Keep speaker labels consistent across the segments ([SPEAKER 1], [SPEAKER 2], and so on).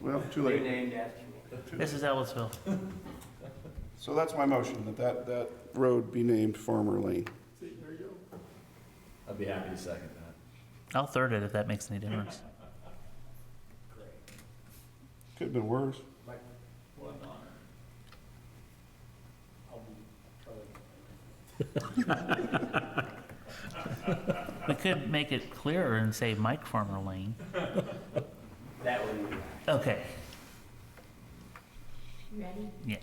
[SPEAKER 1] Well, too
[SPEAKER 2] They're
[SPEAKER 1] late.
[SPEAKER 2] named after me.
[SPEAKER 3] This is Ellisville.
[SPEAKER 1] So that's my motion, that that, that road be named Farmer Lane.
[SPEAKER 4] I'd be happy to second that.
[SPEAKER 3] I'll third it if that makes any difference.
[SPEAKER 1] Could've been worse.
[SPEAKER 3] We could make it clearer and say Mike Farmer Lane.
[SPEAKER 2] That would be.
[SPEAKER 3] Okay,
[SPEAKER 5] Ready?
[SPEAKER 3] yeah,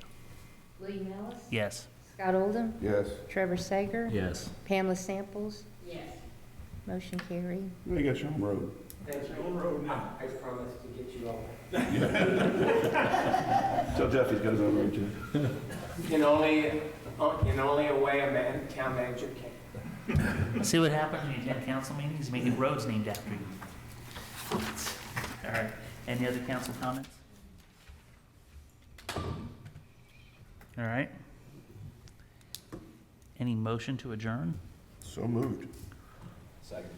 [SPEAKER 5] William Ellis?
[SPEAKER 3] yes.
[SPEAKER 5] Scott Oldham?
[SPEAKER 1] Yes.
[SPEAKER 5] Trevor Sager?
[SPEAKER 4] Yes.
[SPEAKER 5] Pamela Samples?
[SPEAKER 2] Yes.
[SPEAKER 5] Motion carried.
[SPEAKER 1] You got your own road.
[SPEAKER 2] Thank you. I I promise to get you all.
[SPEAKER 1] Tell Jeff he's got his own road too.
[SPEAKER 2] In only, in only a way a man, town manager can.
[SPEAKER 3] See what happens when you attend council meetings, you make roads named after you. All right, any other council comments? All right. Any motion to adjourn?
[SPEAKER 1] So moved.
[SPEAKER 4] Second.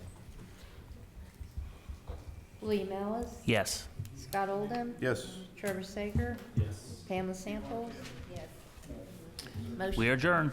[SPEAKER 5] William Ellis?
[SPEAKER 3] Yes.
[SPEAKER 5] Scott Oldham?
[SPEAKER 1] Yes.
[SPEAKER 5] Trevor Sager?
[SPEAKER 4] Yes.
[SPEAKER 5] Pamela Samples? Yes. Motion
[SPEAKER 3] We adjourn.